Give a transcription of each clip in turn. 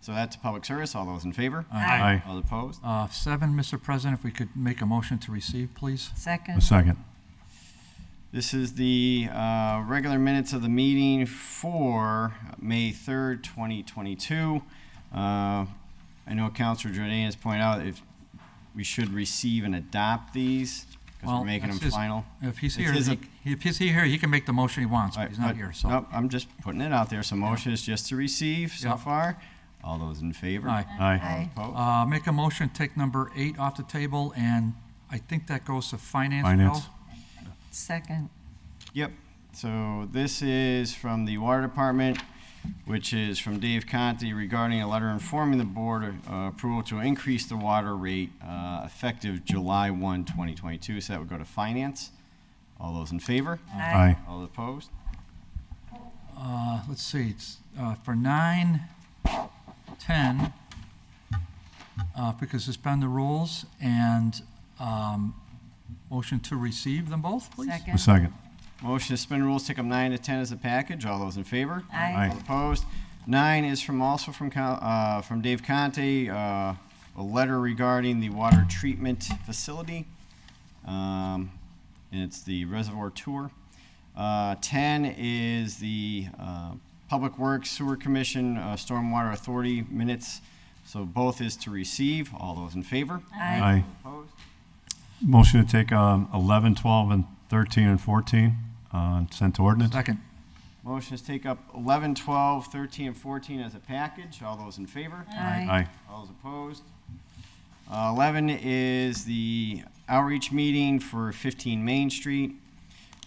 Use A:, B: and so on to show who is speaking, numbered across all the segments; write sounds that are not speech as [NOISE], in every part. A: So that's public service. All those in favor?
B: Aye.
A: All opposed?
B: Uh, Seven, Mr. President, if we could make a motion to receive, please.
C: Second.
D: A second.
A: This is the uh, regular minutes of the meeting for May 3rd, 2022. Uh, I know Counselor Jordan has pointed out if we should receive and adopt these because
B: Well,
A: we're making
B: that's
A: them
B: his-
A: final.
B: If he's
A: It's
B: here,
A: his-
B: he- if he's here, he can make the motion he wants,
A: Right,
B: but he's not
A: but-
B: here, so.
A: Nope, I'm just putting it out there. So motion is just to receive so
B: Yeah.
A: far. All those in favor?
B: Aye.
D: Aye.
A: All opposed?
B: Uh, Make a motion, take number eight off the table, and I think that goes to finance, Bill?
D: Finance.
C: Second.
A: Yep. So this is from the Water Department, which is from Dave Conti regarding a letter informing the board uh, approval to increase the water rate uh, effective July 1, 2022. So that would go to finance. All those in favor?
D: Aye.
A: All opposed?
B: Uh, Let's see, it's uh, for nine, 10, uh, if we could suspend the rules, and um, motion to receive them both, please?
D: A
C: Second.
D: second.
A: Motion to suspend rules, take up nine to 10 as a package. All those in favor?
C: Aye.
A: All opposed. Nine is from, also from, Con- uh, from Dave Conte, uh, a letter regarding the water treatment facility. Um, and it's the reservoir tour. Uh, ten is the, uh, Public Works Sewer Commission, uh, Stormwater Authority minutes. So both is to receive. All those in favor?
D: Aye.
A: Opposed.
D: Motion to take um, 11, 12, and 13, and 14, uh, sent to ordinance.
B: Second.
A: Motion is take up 11, 12, 13, and fourteen as a package. All those in favor?
D: Aye.
A: All those opposed? Uh, Eleven is the outreach meeting for fifteen Main Street.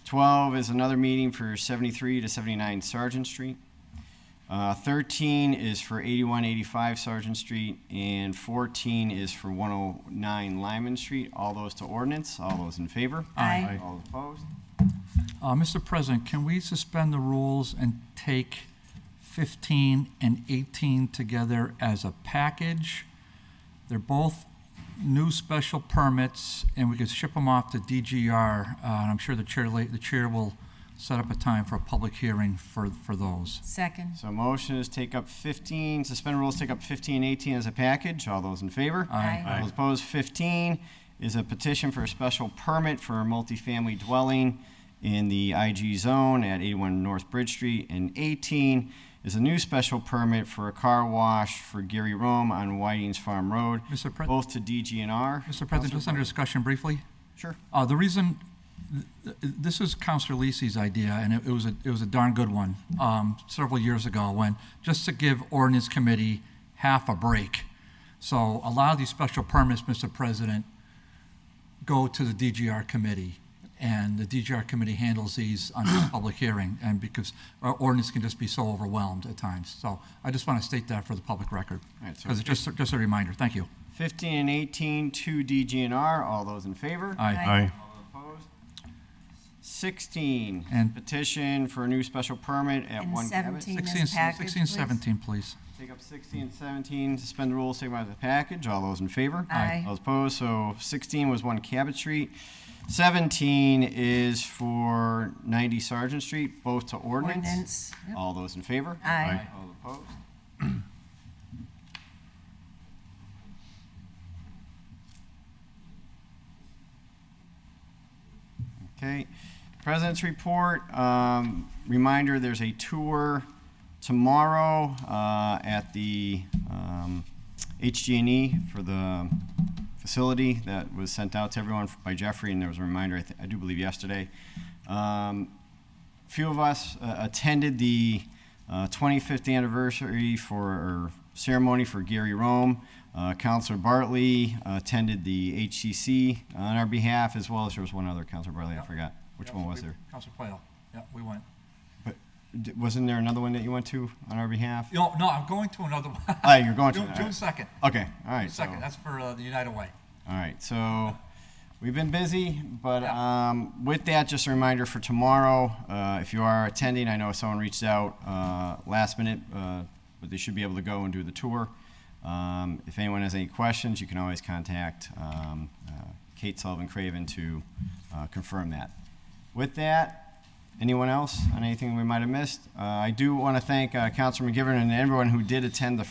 A: Twelve is another meeting for seventy-three to seventy-nine Sergeant Street. Uh, Thirteen is for eighty-one, eighty-five Sergeant Street, and fourteen is for one oh nine Lyman Street. All those to ordinance, all those in favor?
C: Aye.
A: All opposed?
B: Uh, Mr. President, can we suspend the rules and take 15 and 18 together as a package? They're both new special permits, and we could ship them off to DGR, uh, and I'm sure the chair, la- the chair will set up a time for a public hearing for, for those.
C: Second.
A: So motion is take up fifteen, suspend rules, take up 15, 18 as a package. All those in favor?
C: Aye.
A: All those opposed, 15 is a petition for a special permit for a multifamily dwelling in the IG zone at 81 North Bridge Street. And 18 is a new special permit for a car wash for Gary Rome on Whiting's Farm Road,
B: Mr. Pre-
A: both to DGNR.
B: Mr. President, just under discussion briefly.
A: Sure.
B: Uh, the reason, th- th- this is Counselor Lisi's idea, and it, it was a, it was a darn good one, um, several years ago, when, just to give ordinance committee half a break. So a lot of these special permits, Mr. President, go to the DGR committee, and the DGR committee handles these on a public hearing, and because our ordinance can just be so overwhelmed at times. So I just want to state that for the public record,
A: right, so-
B: because it's just, just a reminder. Thank you.
A: 15 and 18 to DGNR. All those in favor?
B: Aye.
D: Aye.
A: Opposed? 16,
B: And-
A: petition for a new special permit at
C: And
A: 1 Cabot.
C: 17.
B: Sixteen,
C: This package,
B: sixteen,
C: please.
B: seventeen, please.
A: Take up 16 and 17, suspend the rules, take them out as a package. All those in favor?
C: Aye.
A: All opposed, so 16 was 1 Cabot Street. 17 is for 90 Sergeant Street, both to ordinance.
C: Ordinance. Yep.
A: All those in favor?
C: Aye.
A: All opposed? Okay, President's Report, um, reminder, there's a tour tomorrow, uh, at the, um, HGNE E for the facility that was sent out to everyone by Jeffrey, and there was a reminder, I, th- I do believe yesterday. Um, few of us uh, attended the uh, 25th anniversary for or ceremony for Gary Rome. Uh, Counselor Bartley attended the HCC on our behalf, as well as there was one other Counselor Bartley. I forgot which one was there.
B: Counselor Plato. Yeah, we went.
A: But d- wasn't there another one that you went to on our behalf?
B: No, no, I'm going to another one.
A: Oh, you're going to
B: [LAUGHS] June,
A: another.
B: June second.
A: Okay, all right. so-
B: Second, that's for uh, the United Way.
A: All right, so we've been busy, but
B: Yeah.
A: um, with that, just a reminder for tomorrow, uh, if you are attending, I know someone reached out uh, last minute, uh, but they should be able to go and do the tour. Um, If anyone has any questions, you can always contact um, uh, Kate Sullivan Craven to uh, confirm that. With that, anyone else on anything we might have missed? Uh, I do want to thank uh, Councilor McGivern and everyone who did attend the